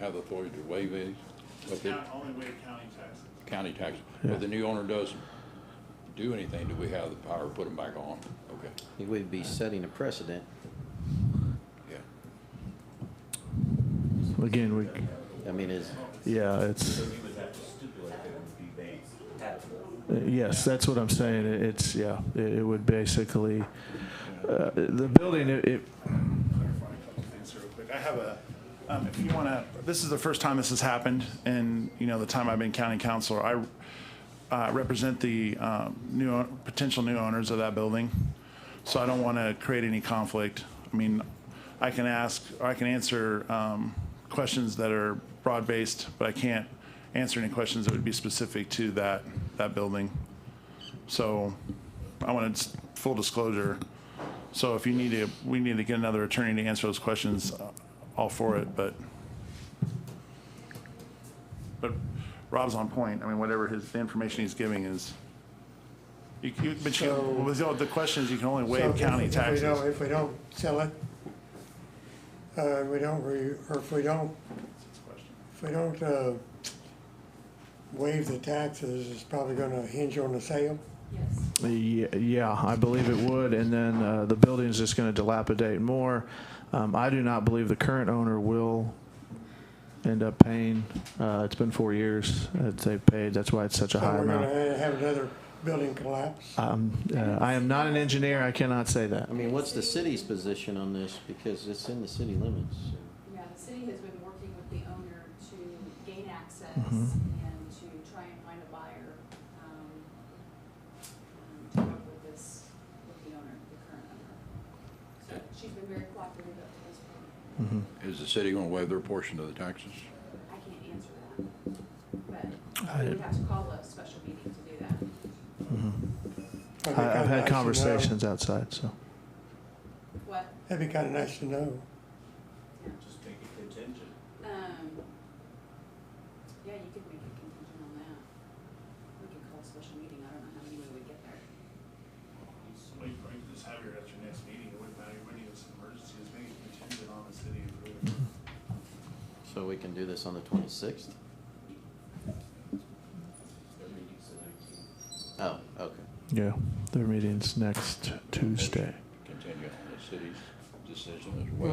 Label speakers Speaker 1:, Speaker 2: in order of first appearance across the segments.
Speaker 1: have the authority to waive these? But
Speaker 2: County,
Speaker 1: the
Speaker 2: only waive county taxes.
Speaker 1: county taxes, but the new owner doesn't do anything, do we have the power to put them back on? Okay,
Speaker 3: We'd be setting a precedent.
Speaker 1: yeah.
Speaker 4: Again, we,
Speaker 3: I mean, is,
Speaker 4: yeah, it's,
Speaker 5: So you would have to stipulate that it would be made habitable.
Speaker 4: yes, that's what I'm saying. It- It's, yeah, it it would basically, uh, the building, it, it-
Speaker 2: clarify a couple things real quick. I have a, um, if you want to, this is the first time this has happened in, you know, the time I've been county councilor. I uh, represent the um, new, own- potential new owners of that building, so I don't want to create any conflict. I mean, I can ask, or I can answer um, questions that are broad-based, but I can't answer any questions that would be specific to that, that building. So I wanted s- full disclosure. So if you need to, we need to get another attorney to answer those questions, uh, all for it, but. But Rob's on point. I mean, whatever his, the information he's giving is. You, you, but you,
Speaker 6: So-
Speaker 2: with all the questions, you can only
Speaker 6: So
Speaker 2: waive
Speaker 6: if-
Speaker 2: county
Speaker 6: if we
Speaker 2: taxes.
Speaker 6: don't- If we don't sell it, uh, we don't, re- or if we don't, if we don't, uh, waive the taxes, it's probably gonna hinge on the sale.
Speaker 7: Yes.
Speaker 4: Ye- Yeah, I believe it would, and then uh, the building's just going to dilapidate more. Um, I do not believe the current owner will end up paying. Uh, It's been four years that they've paid, that's why it's such a
Speaker 6: So
Speaker 4: high
Speaker 6: we're gonna
Speaker 4: amount.
Speaker 6: ha- have another building collapse.
Speaker 4: Um, uh, I am not an engineer, I cannot say that.
Speaker 3: I mean, what's the city's position on this? Because it's in the city limits.
Speaker 7: Yeah, the city has been working with the owner to gain access and to try and find a buyer, um, um, to work with this, with the owner, the current owner. So she's been very cooperative up to this point.
Speaker 4: Mm-hmm.
Speaker 1: Is the city gonna waive their portion of the taxes?
Speaker 7: I can't answer that, but we would have to call a special meeting to do that.
Speaker 6: That'd be
Speaker 4: I- I've
Speaker 6: kinda nice
Speaker 4: had
Speaker 6: to know.
Speaker 4: conversations outside, so.
Speaker 7: What,
Speaker 6: That'd be kinda nice to know.
Speaker 5: Just make it contingent.
Speaker 7: um, yeah, you could make a contingent on that. We could call a special meeting, I don't know how many we would get there.
Speaker 2: Somebody bring this, have your, at your next meeting, it wouldn't matter, you wouldn't even, it's an emergency, it's making contingent on the city approving.
Speaker 3: So we can do this on the 26th?
Speaker 5: Their meeting's the nineteenth.
Speaker 3: Oh, okay.
Speaker 4: Yeah, their meeting's next Tuesday.
Speaker 1: Continue on the city's decision as well.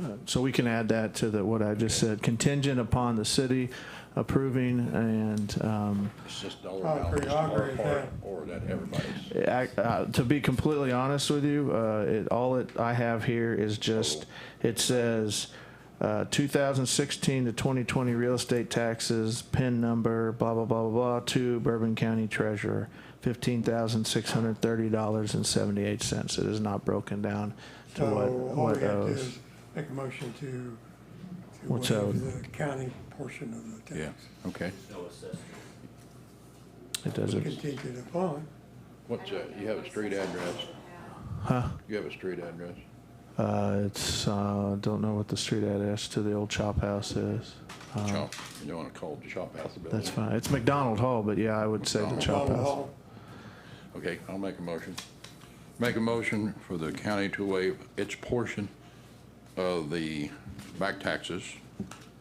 Speaker 6: Mm-hmm.
Speaker 4: Uh, So we can add that to the, what I just said, contingent upon the city approving and um,
Speaker 1: It's just dollar
Speaker 6: I
Speaker 1: amount,
Speaker 6: agree,
Speaker 1: it's
Speaker 6: I
Speaker 1: our
Speaker 6: agree with
Speaker 1: part,
Speaker 6: that.
Speaker 1: or that everybody's.
Speaker 4: I- uh, to be completely honest with you, uh, it, all it, I have here is just, it says, uh, 2016 to 2020 real estate taxes, PIN number, blah, blah, blah, blah, blah, to Bourbon County Treasurer, $15,630.78. It is not broken down to
Speaker 6: So
Speaker 4: what,
Speaker 6: all
Speaker 4: what
Speaker 6: we have to
Speaker 4: owes.
Speaker 6: do is make a motion to, to
Speaker 4: What's owed?
Speaker 6: waive the county portion of the
Speaker 1: Yeah,
Speaker 6: tax.
Speaker 1: okay.
Speaker 5: No assessment.
Speaker 4: It doesn't,
Speaker 6: Contingent upon,
Speaker 1: What's, uh, you have a street address?
Speaker 4: huh?
Speaker 1: You have a street address?
Speaker 4: Uh, it's, uh, don't know what the street address to the old chop house is. Uh,
Speaker 1: Chop, you don't wanna call it Chop House Building?
Speaker 4: That's fine. It's McDonald Hall, but yeah, I would say the chop
Speaker 6: Donald
Speaker 4: house.
Speaker 6: Hall.
Speaker 1: Okay, I'll make a motion. Make a motion for the county to waive its portion of the back taxes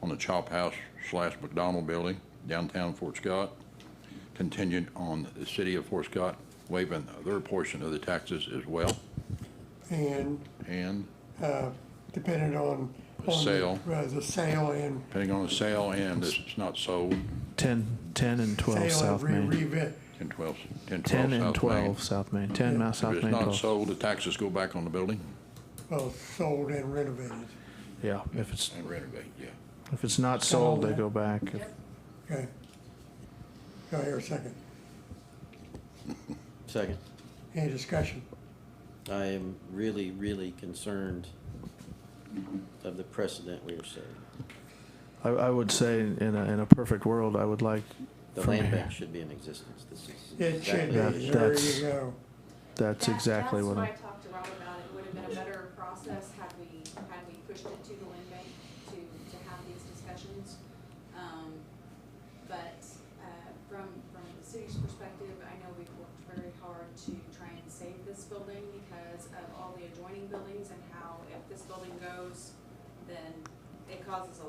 Speaker 1: on the Chop House slash McDonald Building downtown Fort Scott, contingent on the city of Fort Scott waiving their portion of the taxes as well,
Speaker 6: and
Speaker 1: and
Speaker 6: uh, dependent on.
Speaker 1: The
Speaker 6: on the-
Speaker 1: sale.
Speaker 6: uh, The sale and,
Speaker 1: depending on the sale and if it's not sold,
Speaker 4: 10, 10 and 12
Speaker 6: sale
Speaker 4: South
Speaker 6: and re-
Speaker 4: Main.
Speaker 6: re-
Speaker 1: 10, 12, 10, 12
Speaker 4: 10 and
Speaker 1: uh, South Main.
Speaker 4: 12 South Main. 10 Mount
Speaker 1: If
Speaker 4: South
Speaker 1: it's
Speaker 4: Main
Speaker 1: not
Speaker 4: 12.
Speaker 1: sold, the taxes go back on the building
Speaker 6: well, sold and renovated,
Speaker 4: Yeah, if it's,
Speaker 1: and renovate, yeah.
Speaker 4: if it's not sold, they go back.
Speaker 6: okay? Go here a second,
Speaker 3: Second.
Speaker 6: any discussion?
Speaker 3: I am really, really concerned of the precedent we are setting.
Speaker 4: I, I would say in a, in a perfect world, I would like
Speaker 3: The
Speaker 4: from
Speaker 3: land
Speaker 4: here.
Speaker 3: bank should be in existence. This is
Speaker 6: It should
Speaker 3: exactly.
Speaker 6: be,
Speaker 4: That-
Speaker 6: there
Speaker 4: that's-
Speaker 6: you go,
Speaker 4: That's
Speaker 7: That-
Speaker 4: exactly what I,
Speaker 7: That's what I talked to Rob about, it would have been a better process had we, had we pushed it to the land bank to, to have these discussions. Um, But, uh, from, from the city's perspective, I know we've worked very hard to try and save this building because of all the adjoining buildings and how if this building goes, then it causes a